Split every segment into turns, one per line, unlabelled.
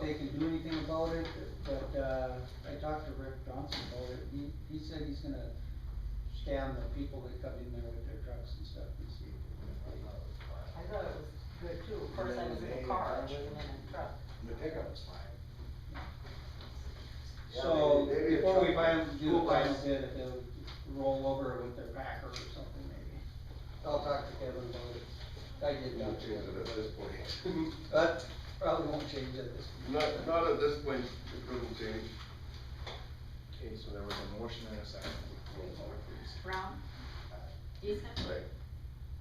they can do anything about it, but, uh, I talked to Rick Johnson about it, he, he said he's gonna scan the people that come in there with their trucks and stuff and see if they can find out.
I thought it was good too, of course, I was in the car, I wasn't in a truck.
The pickup was fine. Yeah,
So,
maybe- maybe a
before we
truck-
buy them, do the
school
final
bus.
bid, if they'll roll over with their packer or something maybe. I'll talk to Kevin about it, I did
Not
not
change it at this point.
But probably won't change at this point.
Not, not at this point, it wouldn't change.
Okay, so there was a motion and a second. Roll call, please.
Brown. Easton.
Right.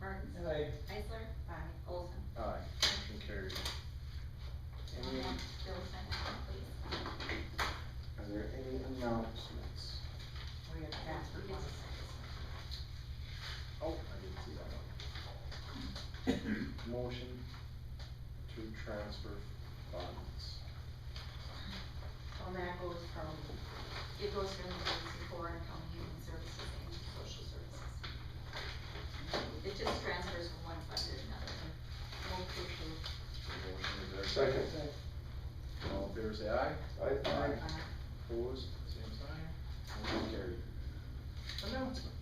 Burns.
Anyway,
Isler. Aye. Olson.
Aye, motion carried.
One
Any,
more, Bill, sign this one, please.
are there any announcements?
We had transfer
Yes.
funds.
Oh, I didn't see that one. Motion to transfer funds.
Well, that goes from,
It goes from the agency for county human services and social services. It just transfers from one fund to another. Move to approve.
Motion, is there a
Second.
second? All in favor, say aye.
Aye.
uh,
Opposed, same sign. Motion carried. Announcements.